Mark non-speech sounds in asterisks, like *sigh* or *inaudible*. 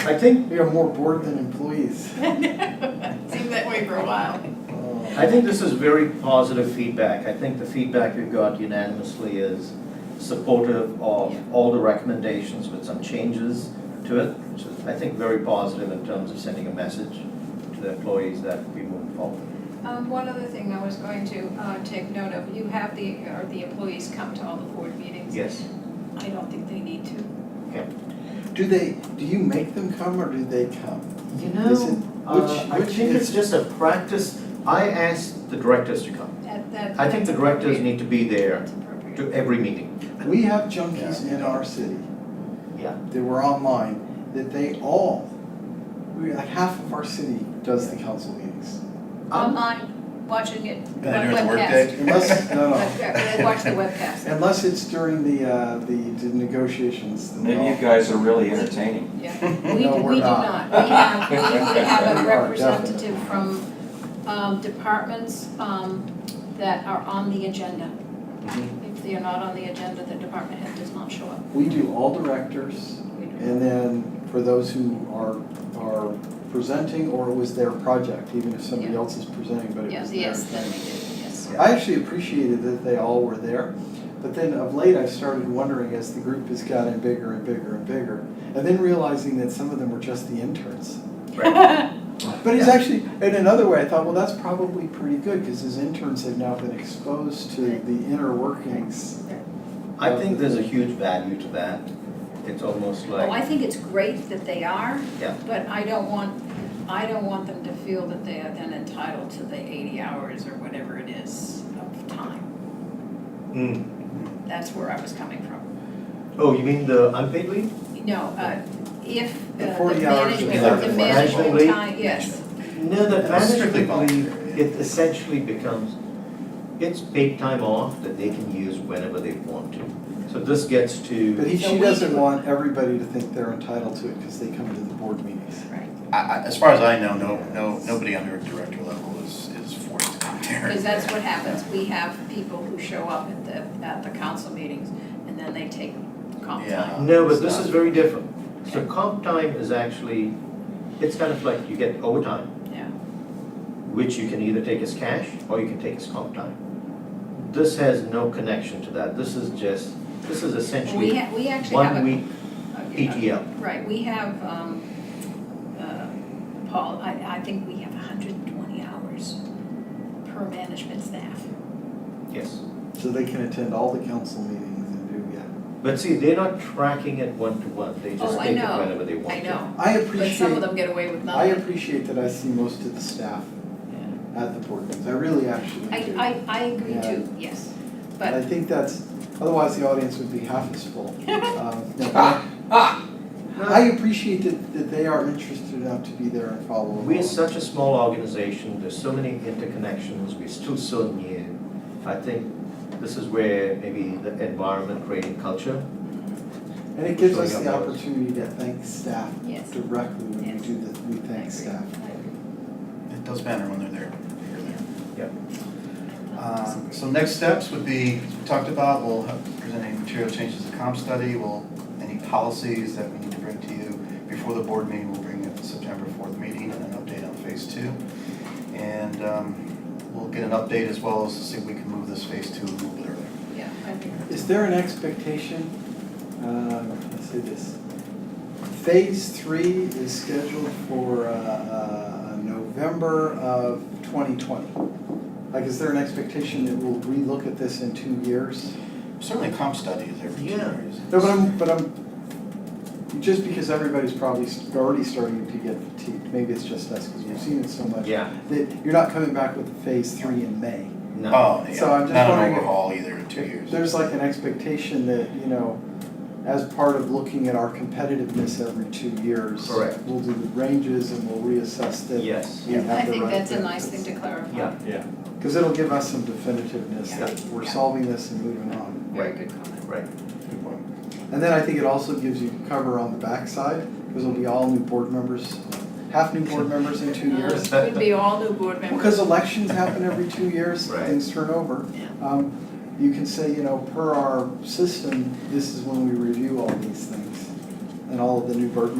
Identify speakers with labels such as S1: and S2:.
S1: I think we are more bored than employees.
S2: *laughs* Seemed that way for a while.
S1: Uh,
S3: I think this is very positive feedback. I think the feedback we've got unanimously is supportive of all the recommendations with some changes to it, which is, I think, very positive in terms of sending a message to the employees that we move forward.
S2: Um, one other thing I was going to, uh, take note of, you have the, or the employees come to all the board meetings.
S3: Yes.
S2: I don't think they need to.
S1: Do they, do you make them come or do they come?
S3: You
S1: Is it-
S3: Uh, I
S1: which
S3: think it's
S1: is-
S3: just a practice. I asked the directors to come.
S2: That, that.
S3: I think the directors need to be there
S2: That's appropriate.
S3: to every meeting.
S1: We have junkies in our city.
S3: Yeah.
S1: That were online, that they all, we, like half of our city does the council meetings.
S3: Um,
S2: Online, watching it, webcast.
S4: Better at workday.
S1: Unless, no, no,
S2: Webcast, they watch the webcast,
S1: *laughs* unless it's during the, uh, the the negotiations, then they
S5: Maybe you
S1: all.
S5: guys are really entertaining.
S2: yeah. We,
S1: No,
S2: do-
S1: we're
S2: we do
S1: not.
S2: not, we have, we we have a
S1: We are definitely.
S2: representative from, um, departments, um, that are on the agenda.
S3: Um,
S2: If they are not on the agenda, the department head does not show up.
S1: We do all directors,
S2: We do-
S1: And then for those who are, are presenting, or it was their project, even if somebody
S2: Yeah.
S1: else is presenting, but it
S2: Yeah,
S1: was their
S2: yes, then we
S1: thing.
S3: *laughs*
S2: do, yes.
S3: uh,
S1: I actually appreciated that they all were there, but then of late I started wondering as the group has gotten bigger and bigger and bigger, and then realizing that some of them were just the interns. But it's actually, in another way, I thought, well, that's probably pretty good, because as interns, they've now been exposed to
S2: Right.
S1: the inner workings.
S3: I think there's a huge value to that. It's almost
S2: Well,
S3: like,
S2: Oh, I think it's great that they are.
S3: Yeah.
S2: But I don't want, I don't want them to feel that they are then entitled to the eighty hours or whatever it is of time.
S3: Mm.
S2: That's where I was coming from.
S3: oh, you mean the unpaid leave?
S2: No, uh, if uh,
S1: The
S2: the
S1: 40 hours
S2: management,
S3: is like
S2: the
S3: the
S2: management
S3: flexible
S2: time, yes,
S3: No, the
S4: That's
S3: management
S4: strictly voluntary,
S3: leave,
S4: yeah.
S3: it essentially becomes, it's paid time off that they can use whenever they want to. So this gets
S1: But
S3: to,
S1: he,
S2: So
S1: she
S2: we
S1: doesn't
S2: do-
S1: want everybody to think they're entitled to it, because they come to the board meetings.
S2: right.
S4: I, I, as far as I know, no, no, nobody under a director level is, is forced to come there.
S2: Because that's what happens. We have people who show up at the, at the council meetings and then they take comp
S4: Yeah.
S2: time.
S3: no, but this is very different. So comp time is actually, it's kind of like you get overtime.
S2: Yeah.
S3: Which you can either take as cash or you can take as comp time. This has no connection to that. This is just, this is
S2: We
S3: essentially
S2: ha, we actually have a.
S3: one week
S2: a- a-
S3: PTO.
S2: Right, we have, um, uh, Paul, I, I think we have hundred and twenty hours per management staff.
S3: Yes.
S1: So they can attend all the council meetings and do, yeah.
S3: But see, they're not tracking it one to one. They just
S2: Oh, I
S3: take it
S2: know.
S3: whenever they want
S2: I
S3: to.
S2: know,
S1: I
S2: but some of
S1: appreciate,
S2: them get away with
S1: I
S2: nothing.
S1: appreciate that I see most of the staff at the board meetings, I really actually
S2: I,
S1: do.
S2: I, I agree too, yes,
S1: And I
S2: but,
S1: think that's, otherwise the audience would be half as full. Um, no, but
S3: Ah.
S1: I appreciate that, that they are interested enough to be there and follow along.
S3: We're such a small organization, there's so many interconnections, we're still so new. I think this is where maybe the environment creating culture.
S2: mm,
S1: And it gives us the
S3: Showing up those.
S1: opportunity to thank staff
S2: yes,
S1: directly when we
S2: Yes.
S1: do the, we
S2: I agree.
S1: thank staff.
S2: I agree.
S4: It does matter when they're there.
S2: Um,
S4: Um, so next steps would be, as we talked about, we'll have- present any material changes to comp study, we'll, any policies that we need to bring to you before the board meeting, we'll bring you at the September fourth meeting and an update on phase two. And, um, we'll get an update as well as to see if we can move this phase two a little bit earlier.
S2: Yeah, I agree.
S1: Is there an expectation, um, let's say this, phase three is scheduled for, uh, uh, November of twenty twenty? Like, is there an expectation that we'll relook at this in two years?
S4: Certainly comp study is there for two
S3: Yeah.
S4: years.
S1: No, but I'm, but I'm, just because everybody's probably s- already starting to get fatigued, maybe it's just us, because we've seen it so much.
S3: Yeah.
S1: That you're not coming back with phase three in May.
S3: No.
S4: Oh, yeah,
S1: So I'm just
S4: not an
S1: wondering if-
S4: overhaul either in two years.
S1: There's like an expectation that, you know, as part of looking at our competitiveness every two years.
S3: Correct.
S1: We'll do the ranges and we'll reassess that.
S3: Yes.
S1: we have
S2: I
S1: the
S2: think
S1: right
S2: that's a nice thing to clarify.
S3: Yeah.
S1: Because it'll give us some definitiveness that
S2: Yeah.
S1: we're
S2: Yeah.
S1: solving this and moving on.
S2: Very good comment.
S3: Right.
S4: Good point.
S1: And then I think it also gives you cover on the backside, because it'll be all new board members, half new board members in two
S2: Uh,
S1: years.
S2: it Would be all new board members.
S1: Because elections happen every two years,
S3: Right.
S1: things turn over.
S2: Yeah.
S1: Um, you can say, you know, per our system, this is when we review all these things and all of the new burden